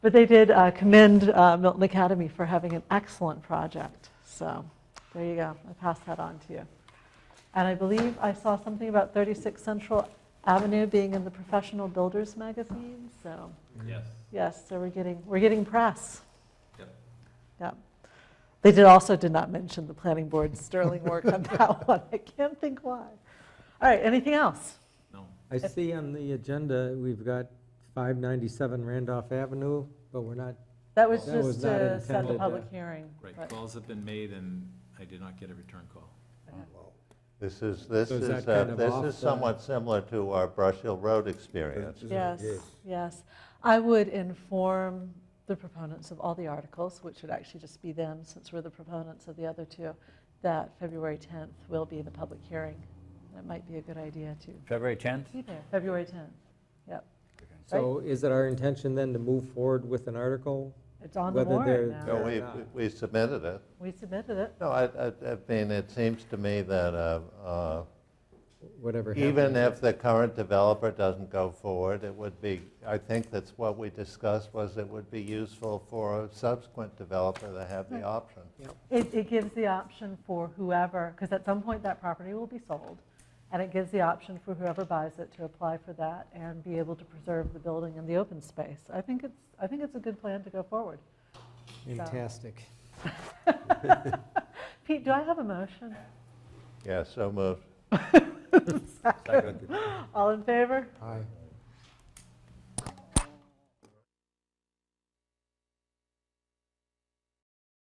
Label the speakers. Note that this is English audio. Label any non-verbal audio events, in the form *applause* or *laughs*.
Speaker 1: But they did uh, commend uh, Milton Academy for having an excellent project. So there you go. I pass that on to you. And I believe I saw something about 36 Central Avenue being in the Professional Builders magazine. So
Speaker 2: Yes.
Speaker 1: yes, so we're getting we're getting press.
Speaker 2: Yep.
Speaker 1: Yep. They did also did not mention the planning board's sterling work
Speaker 2: *laughs*
Speaker 1: on that one. I can't think why. All right. Anything else?
Speaker 2: No.
Speaker 3: I see on the agenda, we've got 597 Randolph Avenue, but we're not,
Speaker 1: That was
Speaker 3: That was
Speaker 1: just
Speaker 3: not
Speaker 1: to set the
Speaker 3: intended, uh,
Speaker 1: public hearing.
Speaker 2: Right,
Speaker 1: but-
Speaker 2: calls have been made and I did not get a return call.
Speaker 4: This is, this
Speaker 3: So is
Speaker 4: is,
Speaker 3: that
Speaker 4: uh,
Speaker 3: kind of
Speaker 4: this
Speaker 3: off
Speaker 4: is
Speaker 3: the-
Speaker 4: somewhat similar to our Brush Hill Road experience.
Speaker 1: Yes, yes. I would inform the proponents of all the articles, which would actually just be them, since we're the proponents of the other two, that February 10th will be the public hearing. That might be a good idea to
Speaker 5: February 10th?
Speaker 1: be there, February 10th. Yep,
Speaker 3: So is it our intention then to move forward with an article?
Speaker 1: it's on the
Speaker 3: Whether they're-
Speaker 1: warrant
Speaker 4: No,
Speaker 1: now.
Speaker 3: Fair
Speaker 4: we,
Speaker 3: enough.
Speaker 4: we submitted it.
Speaker 1: We submitted it.
Speaker 4: No, I, I I mean, it seems to me that uh, uh,
Speaker 3: Whatever happens.
Speaker 4: even if the current developer doesn't go forward, it would be, I think that's what we discussed, was it would be useful for a subsequent developer to have the option.
Speaker 1: It, it gives the option for whoever, because at some point that property will be sold, and it gives the option for whoever buys it to apply for that and be able to preserve the building and the open space. I think it's, I think it's a good plan to go forward.
Speaker 3: Fantastic.
Speaker 1: *laughs* Pete, do I have a motion?
Speaker 3: *laughs*
Speaker 4: Yeah, so moved.
Speaker 1: All in favor?
Speaker 3: Aye.